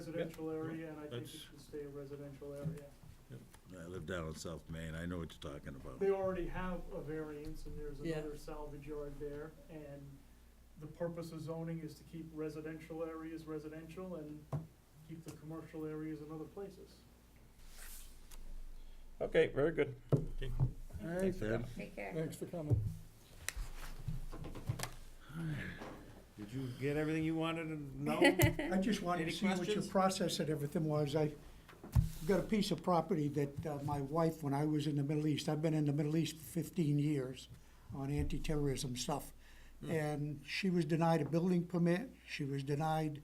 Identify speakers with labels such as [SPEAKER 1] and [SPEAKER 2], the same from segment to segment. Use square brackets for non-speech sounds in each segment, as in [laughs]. [SPEAKER 1] residential area, and I think it
[SPEAKER 2] that's-
[SPEAKER 1] should stay a residential area.
[SPEAKER 3] I live down in South Maine, I know what you're talking about.
[SPEAKER 1] They already have a variance, and there's
[SPEAKER 4] Yeah.
[SPEAKER 1] another salvage yard there, and the purpose of zoning is to keep residential areas residential and keep the commercial areas in other places.
[SPEAKER 5] Okay, very good.
[SPEAKER 4] All right,
[SPEAKER 3] Ted,
[SPEAKER 6] Take care.
[SPEAKER 4] thanks for coming.
[SPEAKER 5] Did you get everything you wanted to know?
[SPEAKER 7] [laughs] I just wanted
[SPEAKER 5] Any
[SPEAKER 7] to see what your
[SPEAKER 5] questions?
[SPEAKER 7] process and everything was. I got a piece of property that uh, my wife, when I was in the Middle East, I've been in the Middle East for fifteen years on anti-terrorism stuff.
[SPEAKER 5] Hmm.
[SPEAKER 7] And she was denied a building permit, she was denied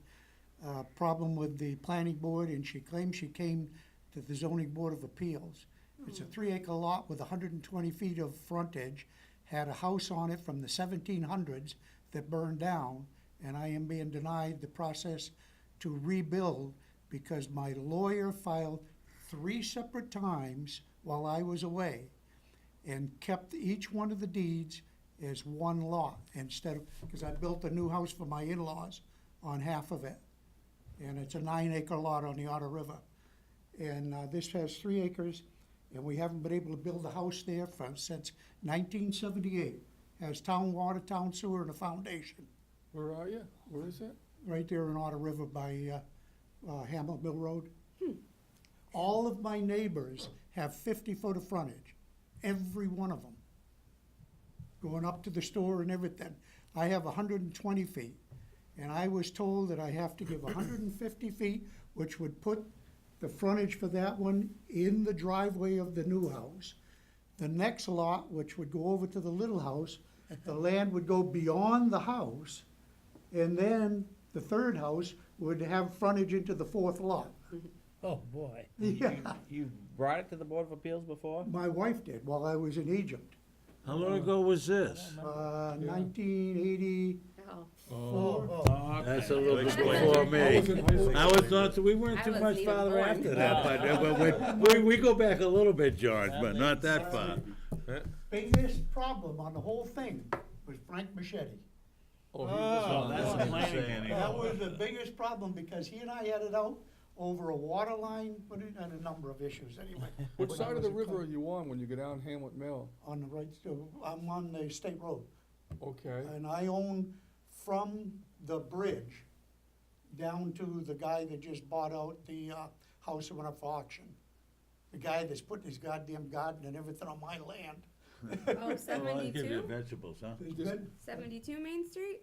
[SPEAKER 7] a problem with the planning board, and she claimed she came to the zoning board of appeals. It's a three acre lot with hundred and twenty feet of frontage, had a house on it from the seventeen hundreds that burned down, and I am being denied the process to rebuild because my lawyer filed three separate times while I was away and kept each one of the deeds as one lot instead of, because I built a new house for my in-laws on half of it. And it's a nine acre lot on the Otter River. And uh, this has three acres, and we haven't been able to build a house there from, since nineteen seventy-eight. Has town water, town sewer, and a foundation,
[SPEAKER 4] Where are you? Where is it?
[SPEAKER 7] right there in Otter River by uh, uh, Hamlet Mill Road. All of my neighbors have fifty-foot of frontage, every one of them. Going up to the store and everything. I have hundred and twenty feet, and I was told that I have to give hundred and fifty feet, which would put the frontage for that one in the driveway of the new house. The next lot, which would go over to the little house, the land would go beyond the house, and then the third house would have frontage into the fourth lot. [laughs]
[SPEAKER 4] Oh, boy.
[SPEAKER 7] Yeah,
[SPEAKER 5] You brought it to the Board of Appeals before?
[SPEAKER 7] my wife did while I was in Egypt,
[SPEAKER 3] how long ago was this?
[SPEAKER 7] uh, nineteen eighty.
[SPEAKER 6] Oh,
[SPEAKER 4] Oh,
[SPEAKER 3] That's a little bit before
[SPEAKER 4] I was in
[SPEAKER 3] me.
[SPEAKER 4] high school.
[SPEAKER 3] I was not, we weren't
[SPEAKER 6] I
[SPEAKER 3] too
[SPEAKER 6] wasn't
[SPEAKER 3] much
[SPEAKER 6] even
[SPEAKER 3] farther
[SPEAKER 6] born.
[SPEAKER 3] after that, but, we, we, we go back a little bit, George, but not that far.
[SPEAKER 7] Biggest problem on the whole thing was Frank Machete.
[SPEAKER 5] Oh, that's the planning.
[SPEAKER 7] That was the biggest problem because he and I had it out over a water line, but it had a number of issues anyway.
[SPEAKER 4] Which
[SPEAKER 7] When I
[SPEAKER 4] side of
[SPEAKER 7] was
[SPEAKER 4] the
[SPEAKER 7] in
[SPEAKER 4] river are
[SPEAKER 7] Col-
[SPEAKER 4] you on when you go down Hamlet Mill?
[SPEAKER 7] On the right, so I'm on the state road.
[SPEAKER 4] Okay,
[SPEAKER 7] And I own from the bridge down to the guy that just bought out the, uh, house that went up for auction. The guy that's putting his goddamn garden and everything on my land.
[SPEAKER 6] oh,
[SPEAKER 3] Well, I'll give you
[SPEAKER 6] 72?
[SPEAKER 3] Vegetables, huh?
[SPEAKER 7] There's
[SPEAKER 4] Just-
[SPEAKER 7] been,
[SPEAKER 6] 72 Main Street?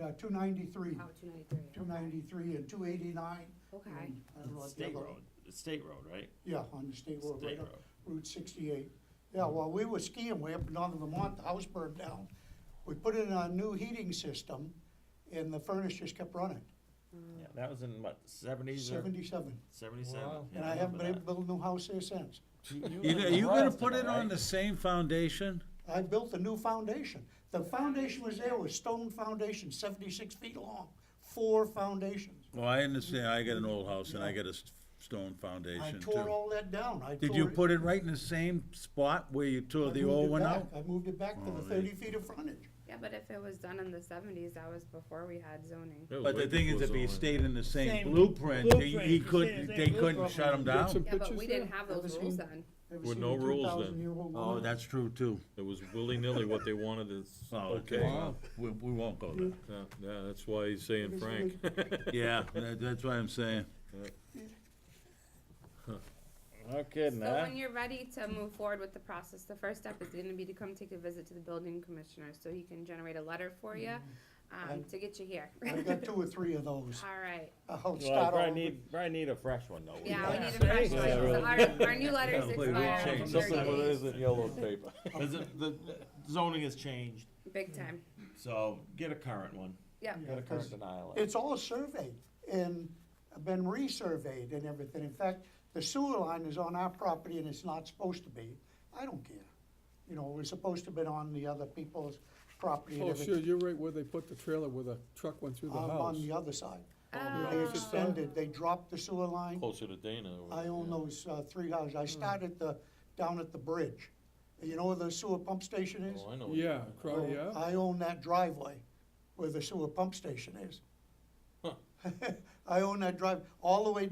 [SPEAKER 7] uh, two ninety-three,
[SPEAKER 6] Oh, 293.
[SPEAKER 7] two ninety-three and two eighty-nine.
[SPEAKER 6] Okay.
[SPEAKER 7] I don't know what the
[SPEAKER 5] State
[SPEAKER 7] other-
[SPEAKER 5] road, state road, right?
[SPEAKER 7] Yeah, on the state road,
[SPEAKER 5] State
[SPEAKER 7] right
[SPEAKER 5] road.
[SPEAKER 7] up Route sixty-eight. Yeah, well, we were skiing way up in northern Vermont, the house burned down. We put in a new heating system and the furnace just kept running,
[SPEAKER 5] Yeah, that was in what, seventies or
[SPEAKER 7] seventy-seven.
[SPEAKER 5] seventy-seven?
[SPEAKER 4] Wow.
[SPEAKER 7] And I haven't been able to build a new house there since.
[SPEAKER 3] You, know, you gonna put it on the same foundation?
[SPEAKER 7] I built a new foundation. The foundation was there, was stone foundation, seventy-six feet long, four foundations.
[SPEAKER 3] Well, I understand, I got an old house and I got a s- stone
[SPEAKER 7] I
[SPEAKER 3] foundation
[SPEAKER 7] tore
[SPEAKER 3] too.
[SPEAKER 7] all that down. I
[SPEAKER 3] Did
[SPEAKER 7] tore
[SPEAKER 3] you
[SPEAKER 7] it-
[SPEAKER 3] put it right in the same spot where you
[SPEAKER 7] I
[SPEAKER 3] tore the
[SPEAKER 7] moved
[SPEAKER 3] old
[SPEAKER 7] it
[SPEAKER 3] one
[SPEAKER 7] back.
[SPEAKER 3] out?
[SPEAKER 7] I moved it back to the thirty feet of frontage.
[SPEAKER 6] Yeah, but if it was done in the 70s, that was before we had zoning.
[SPEAKER 3] But the thing is, if he stayed in the same
[SPEAKER 8] Same
[SPEAKER 3] blueprint, he-
[SPEAKER 8] blueprint,
[SPEAKER 3] he
[SPEAKER 8] the
[SPEAKER 3] couldn't,
[SPEAKER 8] same- same
[SPEAKER 3] they couldn't shut him
[SPEAKER 4] Get some
[SPEAKER 3] down?
[SPEAKER 6] Yeah, but we
[SPEAKER 4] pictures there?
[SPEAKER 6] didn't have those
[SPEAKER 7] Ever seen-
[SPEAKER 6] rules then.
[SPEAKER 7] Ever
[SPEAKER 9] With
[SPEAKER 7] seen
[SPEAKER 9] no
[SPEAKER 7] a
[SPEAKER 9] rules then.
[SPEAKER 7] 2,000-year-old
[SPEAKER 3] Oh,
[SPEAKER 7] woman?
[SPEAKER 3] that's true too.
[SPEAKER 9] It was willy-nilly what they wanted is.
[SPEAKER 3] Oh, okay.
[SPEAKER 4] Wow.
[SPEAKER 3] We, we won't go there.
[SPEAKER 9] Yeah, yeah, that's why he's saying Frank.
[SPEAKER 3] [laughs] Yeah, that, that's what I'm saying.
[SPEAKER 5] No kidding,
[SPEAKER 6] So
[SPEAKER 5] huh?
[SPEAKER 6] when you're ready to move forward with the process, the first step is gonna be to come take a visit to the building commissioner, so he can generate a letter for you, um,
[SPEAKER 7] I-
[SPEAKER 6] to get you here.
[SPEAKER 7] Mm-hmm. I got two or three of those.
[SPEAKER 6] [laughs] All right,
[SPEAKER 7] I'll
[SPEAKER 5] Well, I
[SPEAKER 7] start
[SPEAKER 5] probably
[SPEAKER 7] all over.
[SPEAKER 5] need, probably need a fresh one
[SPEAKER 7] Oh,
[SPEAKER 5] though.
[SPEAKER 6] yeah, we need a fresh one, so our, our new letters
[SPEAKER 3] Yeah, we- we
[SPEAKER 6] expire in
[SPEAKER 3] changed
[SPEAKER 6] thirty days,
[SPEAKER 5] isn't yellow paper. [laughs] the zoning has changed,
[SPEAKER 6] big time,
[SPEAKER 5] so get a current one,
[SPEAKER 6] yeah.
[SPEAKER 5] get a current
[SPEAKER 7] 'cause
[SPEAKER 5] denial.
[SPEAKER 7] It's all surveyed and been resurveyed and everything. In fact, the sewer line is on our property and it's not supposed to be. I don't care. You know, it was supposed to have been on the other people's property and
[SPEAKER 4] Oh, sure,
[SPEAKER 7] everything.
[SPEAKER 4] you're right where they put the trailer where the truck went through the
[SPEAKER 7] I'm
[SPEAKER 4] house.
[SPEAKER 7] on the other side.
[SPEAKER 6] Oh.
[SPEAKER 7] They extended, they dropped the sewer
[SPEAKER 4] Oh,
[SPEAKER 7] line.
[SPEAKER 9] Closer to Dana. over
[SPEAKER 7] I
[SPEAKER 9] there.
[SPEAKER 7] own those uh, three houses.
[SPEAKER 4] Hmm.
[SPEAKER 7] I started the, down at the bridge. You know where the sewer pump station is?
[SPEAKER 9] Oh, I know. what you're
[SPEAKER 4] Yeah,
[SPEAKER 9] talking about.
[SPEAKER 4] cro-
[SPEAKER 7] Well,
[SPEAKER 4] yeah.
[SPEAKER 7] [laughs] I own that driveway where the sewer pump station is. I own that drive all the way